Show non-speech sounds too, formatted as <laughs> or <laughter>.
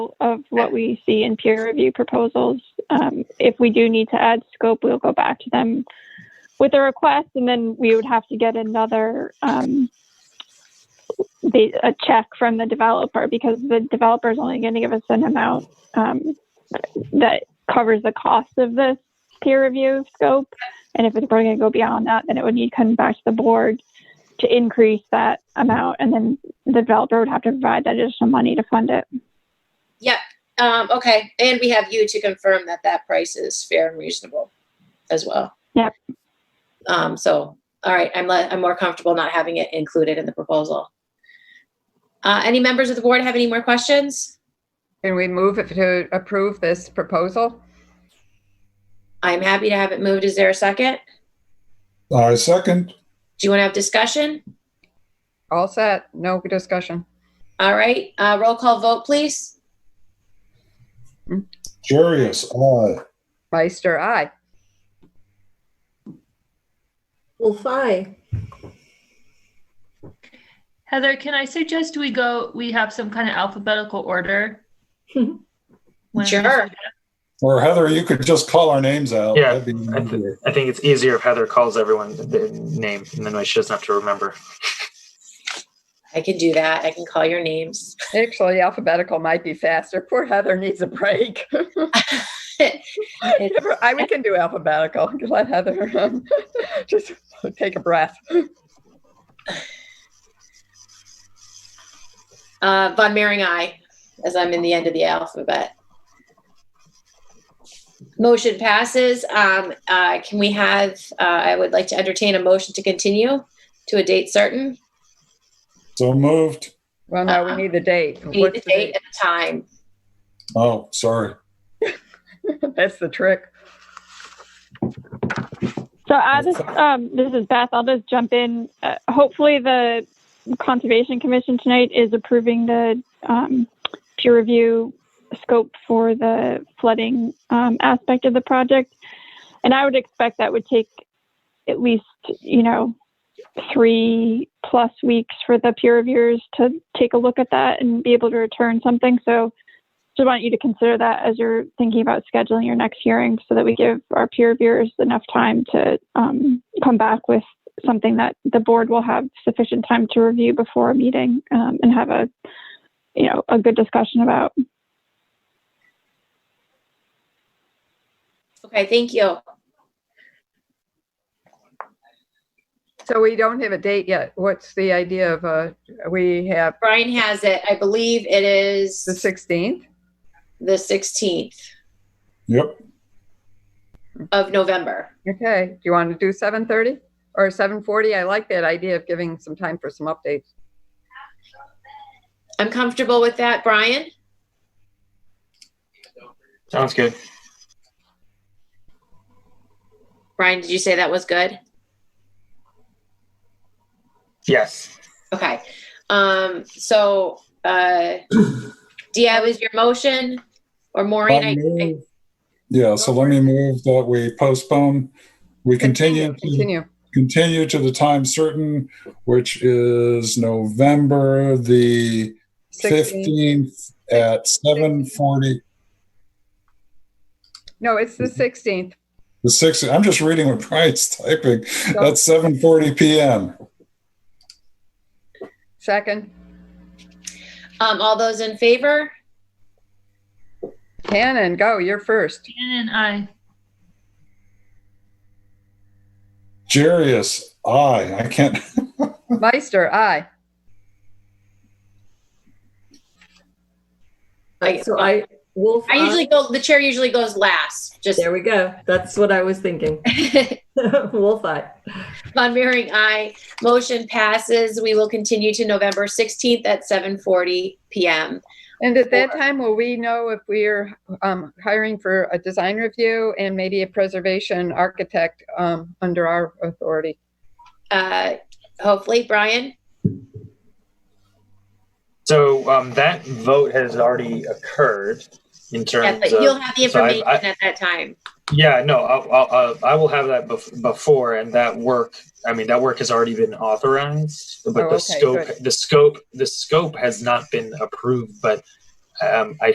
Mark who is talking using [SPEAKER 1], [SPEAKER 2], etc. [SPEAKER 1] of what we see in peer review proposals. Um, if we do need to add scope, we'll go back to them with a request, and then we would have to get another um, the, a check from the developer because the developer is only going to give us an amount um, that covers the cost of this peer review scope. And if it's going to go beyond that, then it would need to come back to the board to increase that amount, and then the developer would have to provide that additional money to fund it.
[SPEAKER 2] Yep. Um, okay. And we have you to confirm that that price is fair and reasonable as well.
[SPEAKER 1] Yep.
[SPEAKER 2] Um, so, all right, I'm, le- I'm more comfortable not having it included in the proposal. Uh, any members of the board have any more questions?
[SPEAKER 3] Can we move it to approve this proposal?
[SPEAKER 2] I'm happy to have it moved. Is there a second?
[SPEAKER 4] I second.
[SPEAKER 2] Do you want to have discussion?
[SPEAKER 3] All set, no discussion.
[SPEAKER 2] All right, uh, roll call vote, please.
[SPEAKER 4] Jarius, aye.
[SPEAKER 3] Meister, aye.
[SPEAKER 5] Wolf eye.
[SPEAKER 6] Heather, can I suggest we go, we have some kind of alphabetical order? when we
[SPEAKER 2] Sure.
[SPEAKER 6] suggest-
[SPEAKER 4] Or Heather, you could just call our names out.
[SPEAKER 7] Yeah,
[SPEAKER 4] That'd be
[SPEAKER 7] I, th-
[SPEAKER 4] easier.
[SPEAKER 7] I think it's easier if Heather calls everyone their name, and then she doesn't have to remember.
[SPEAKER 2] I can do that. I can call your names.
[SPEAKER 3] Actually, alphabetical might be faster. Poor Heather needs a break. <laughs>
[SPEAKER 2] It's-
[SPEAKER 3] I, we can do alphabetical. Let Heather um, <laughs> just take a breath.
[SPEAKER 2] Uh, Von Mering, I, as I'm in the end of the alphabet. Motion passes. Um, uh, can we have, uh, I would like to entertain a motion to continue to a date certain.
[SPEAKER 4] So moved.
[SPEAKER 3] Well, no, we need the date.
[SPEAKER 2] Uh-uh. We need
[SPEAKER 3] What's
[SPEAKER 2] the date and the time.
[SPEAKER 4] Oh, sorry.
[SPEAKER 3] date? <laughs> That's the trick.
[SPEAKER 1] So I just, um, this is Beth. I'll just jump in. Uh, hopefully, the Conservation Commission tonight is approving the um, peer review scope for the flooding um, aspect of the project, and I would expect that would take at least, you know, three plus weeks for the peer reviewers to take a look at that and be able to return something. So. Just want you to consider that as you're thinking about scheduling your next hearing so that we give our peer reviewers enough time to um, come back with something that the board will have sufficient time to review before a meeting um, and have a, you know, a good discussion about.
[SPEAKER 2] Okay, thank you.
[SPEAKER 3] So we don't have a date yet. What's the idea of, uh, we have
[SPEAKER 2] Brian has it. I believe it is
[SPEAKER 3] the 16th?
[SPEAKER 2] the 16th
[SPEAKER 4] Yep.
[SPEAKER 2] of November.
[SPEAKER 3] Okay, do you want to do 7:30 or 7:40? I like that idea of giving some time for some updates.
[SPEAKER 2] I'm comfortable with that, Brian.
[SPEAKER 7] Sounds good.
[SPEAKER 2] Brian, did you say that was good?
[SPEAKER 7] Yes.
[SPEAKER 2] Okay. Um, so, uh, Dia was your motion or Maureen?
[SPEAKER 4] I
[SPEAKER 2] I, I
[SPEAKER 4] move- Yeah, so let me move that we postpone. We continue, to-
[SPEAKER 3] Continue.
[SPEAKER 4] continue to the time certain, which is November the
[SPEAKER 3] 16.
[SPEAKER 4] 15th at 7:40.
[SPEAKER 3] No, it's the
[SPEAKER 4] <laughs>
[SPEAKER 3] 16th.
[SPEAKER 4] The 6th, I'm just reading what Brian's typing. That's 7:40 PM.
[SPEAKER 3] Second.
[SPEAKER 2] um, all those in favor?
[SPEAKER 3] Shannon, go, you're first.
[SPEAKER 6] Shannon, I,
[SPEAKER 4] Jarius, aye. I can't.
[SPEAKER 3] Meister, aye.
[SPEAKER 2] I,
[SPEAKER 5] So I, wolf
[SPEAKER 7] Uh-huh.
[SPEAKER 2] I usually
[SPEAKER 5] eye.
[SPEAKER 2] go, the chair usually goes last, just
[SPEAKER 5] There we go. That's what I was thinking. <laughs>
[SPEAKER 2] <laughs>
[SPEAKER 5] Wolf eye.
[SPEAKER 2] Von Mering, aye. Motion passes. We will continue to November 16th at 7:40 PM.
[SPEAKER 3] And at that
[SPEAKER 2] Four.
[SPEAKER 3] time, will we know if we're um, hiring for a design review and maybe a preservation architect um, under our authority?
[SPEAKER 2] Uh, hopefully, Brian?
[SPEAKER 7] So um, that vote has already occurred in
[SPEAKER 2] Yeah,
[SPEAKER 7] terms
[SPEAKER 2] but you'll
[SPEAKER 7] of.
[SPEAKER 2] have the
[SPEAKER 7] so I-
[SPEAKER 2] information at that time.
[SPEAKER 7] Yeah, no, I'll, I'll, I'll, I will have that bef- before, and that work. I mean, that work has already been authorized, but
[SPEAKER 3] Oh,
[SPEAKER 7] the
[SPEAKER 3] okay,
[SPEAKER 7] scope,
[SPEAKER 3] good.
[SPEAKER 7] the scope, the scope has not been approved. But um, I